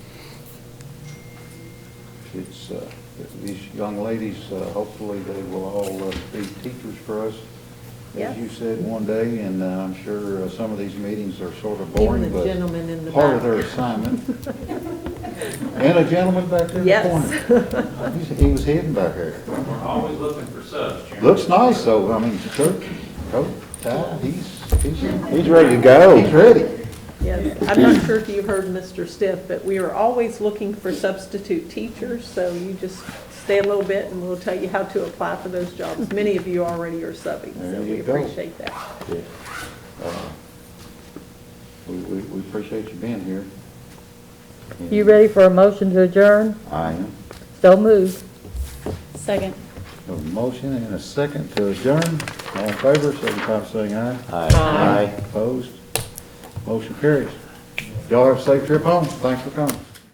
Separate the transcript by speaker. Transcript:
Speaker 1: it's, uh, these young ladies, uh, hopefully they will all uh, be teachers for us,
Speaker 2: Yeah.
Speaker 1: as you said one day, and uh, I'm sure uh, some of these meetings are sort of
Speaker 2: Even
Speaker 1: boring,
Speaker 2: the
Speaker 1: but
Speaker 2: gentleman in the
Speaker 1: part of their
Speaker 2: back.
Speaker 1: assignment. And a gentleman back there in the corner.
Speaker 2: Yes.
Speaker 1: He's- He was hidden back there.
Speaker 3: We're always looking for subs, Chairman.
Speaker 1: Looks nice, though, I mean, shirt, coat, tie, he's, he's. He's ready to go. He's ready.
Speaker 2: Yes, I'm not sure if you heard Mr. Stiff, but we are always looking for substitute teachers, so you just stay a little bit and we'll tell you how to apply for those jobs. Many of you already are subbing,
Speaker 1: There
Speaker 2: so we
Speaker 1: you go.
Speaker 2: appreciate that.
Speaker 1: Uh, We, we, we appreciate you being here.
Speaker 4: You ready for a motion to adjourn?
Speaker 1: I am.
Speaker 4: So moved.
Speaker 5: Second.
Speaker 1: A motion and a second to adjourn. All in favor, signify by saying aye.
Speaker 4: Aye.
Speaker 1: Opposed? Motion carries. Y'all have a safe trip home. Thanks for coming.